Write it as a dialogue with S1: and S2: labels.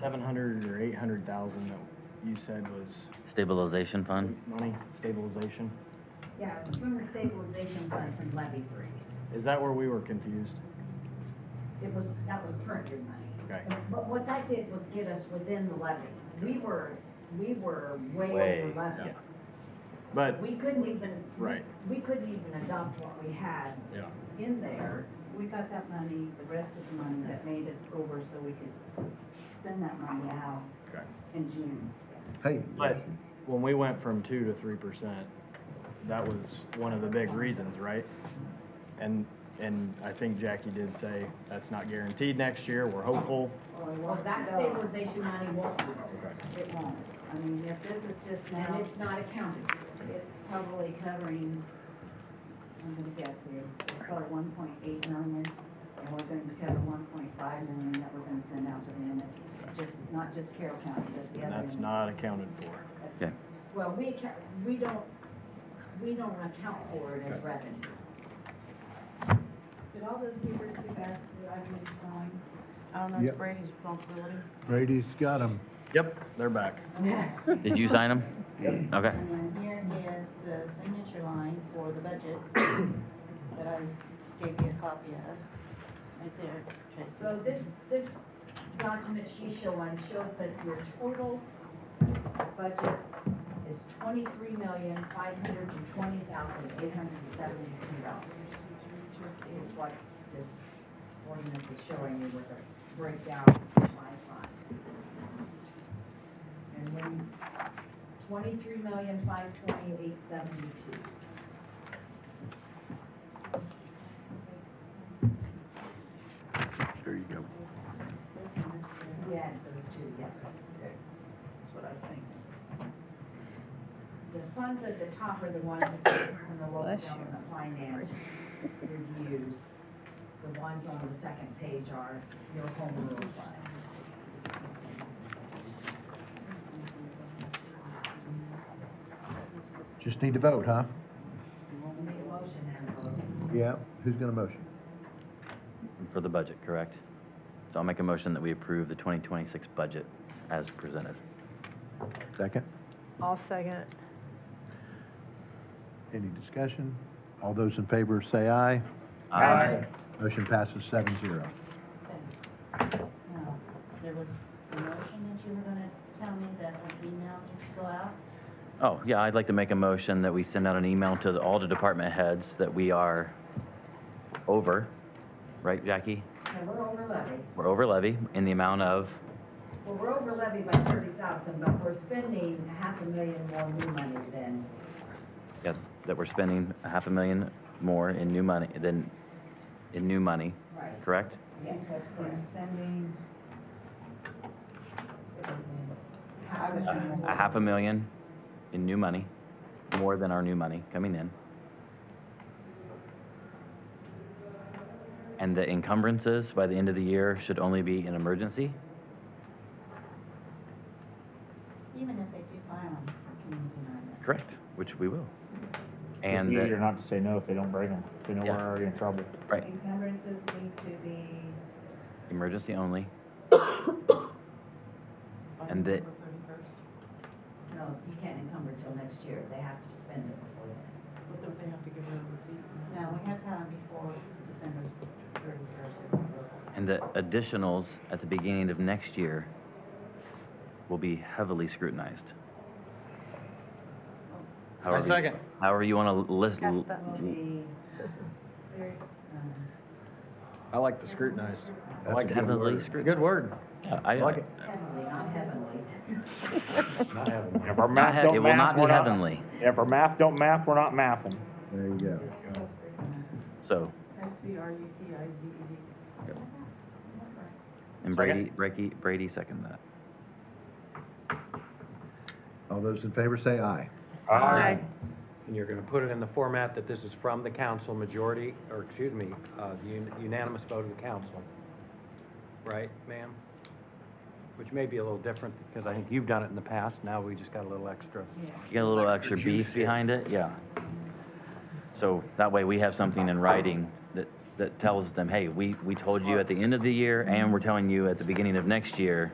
S1: seven hundred or eight hundred thousand that you said was
S2: Stabilization fund?
S1: money stabilization?
S3: Yeah, it was from the stabilization fund from levy freeze.
S1: Is that where we were confused?
S3: It was, that was current year money.
S1: Okay.
S3: But what that did was get us within the levy. We were, we were way
S2: Way,
S3: over levy.
S1: But,
S3: We couldn't even.
S1: Right.
S3: We couldn't even adopt what we had
S1: yeah,
S3: in there.
S4: We got that money, the rest of the money that made us over so we could send that money out
S1: okay.
S4: in June.
S5: Hey.
S1: But when we went from two to three percent, that was one of the big reasons, right? And, and I think Jackie did say, that's not guaranteed next year, we're hopeful.
S4: Or it
S3: Well,
S4: won't
S3: that
S4: go.
S3: stabilization money won't be there.
S4: It won't. I mean, if this is just
S3: And
S4: now,
S3: it's not accounted for.
S4: it's probably covering, I'm gonna guess here, it's probably one point eight million. And we're gonna cover one point five million that we're gonna send out to the entities, just, not just Carroll County, but the
S1: And
S4: other.
S1: that's
S4: entities.
S1: not accounted for.
S4: That's-
S2: Yeah.
S3: Well, we account, we don't, we don't account for it as revenue.
S4: Did all those papers get back that I made sign?
S6: I don't know, it's
S5: Yep.
S6: Brady's responsibility.
S5: Brady's got him.
S1: Yep, they're back.
S2: Did you sign them? Okay.
S4: And then here is the signature line for the budget that I gave you a copy of, right there, Tracy.
S3: So this, this document she's showing shows that your total budget is twenty-three million, five hundred and twenty thousand, eight hundred and seventy-two dollars. Is what this ordinance is showing you with a breakdown by fund. And then twenty-three million, five twenty, eight seventy-two.
S5: There you go.
S4: This one is for-
S3: Yeah, those two together.
S4: That's what I was thinking.
S3: The funds at the top are the ones that come from the local government finance reviews. The ones on the second page are your home rule funds.
S5: Just need to vote, huh?
S3: You want me to make a motion and a vote?
S5: Yeah. Who's gonna motion?
S2: For the budget, correct? So I'll make a motion that we approve the 2026 budget as presented.
S5: Second.
S6: I'll second.
S5: Any discussion? All those in favor say aye.
S2: Aye.
S5: Motion passes seven zero.
S4: Now, there was a motion that you were gonna tell me that an email needs to go out.
S2: Oh, yeah, I'd like to make a motion that we send out an email to the- all the department heads that we are over, right, Jackie?
S3: Okay, we're over levy.
S2: We're over levy in the amount of,
S3: Well, we're over levy by thirty thousand, but we're spending half a million more new money than,
S2: yeah, that we're spending a half a million more in new money than, in new money,
S3: right?
S2: correct?
S3: Yes, that's correct.
S4: Spending.
S3: Half a million
S2: A half a million in new money, more than our new money coming in. And the encumbrances by the end of the year should only be an emergency?
S4: Even if they do file them, can you deny that?
S2: Correct, which we will.
S7: It's
S2: And,
S7: easier
S2: that-
S7: not to say no if they don't bring them, if they know uh, we're
S2: Yeah.
S7: already in trouble.
S2: right,
S4: Encumbrances need to be.
S2: emergency only. And that,
S3: No, you can't encumber till next year. They have to spend it before then.
S6: But don't they have to give them a receipt?
S4: No, we have to have them before December thirty-first, is the rule.
S2: and the additionals at the beginning of next year will be heavily scrutinized. However you-
S1: second.
S2: However you want to list,
S6: Cast that
S4: Will be, ser- um,
S1: I like the scrutinized. I
S5: That's
S1: like
S5: a
S1: it.
S5: good
S2: Heavily
S5: word.
S1: It's a good word.
S2: Yeah, I,
S1: I like it.
S3: Heavenly, not heavenly.
S7: If our
S2: Not
S7: math
S2: hea- it
S7: don't
S2: will
S7: math,
S2: not be
S7: we're not,
S2: heavenly.
S7: if our math don't math, we're not mathing.
S5: There you go.
S2: So,
S6: S C R U T I Z E D.
S2: and Brady, Brady, Brady seconded that.
S5: All those in favor say aye.
S8: Aye. And you're going to put it in the format that this is from the council majority, or excuse me, uh, the un- unanimous vote of the council. Right, ma'am? Which may be a little different because I think you've done it in the past. Now we just got a little extra.
S2: You got a little
S8: Extra
S2: extra
S8: juice
S2: beef
S8: here.
S2: behind it, yeah. So that way we have something in writing that, that tells them, hey, we, we told you at the end of the year and we're telling you at the beginning of next year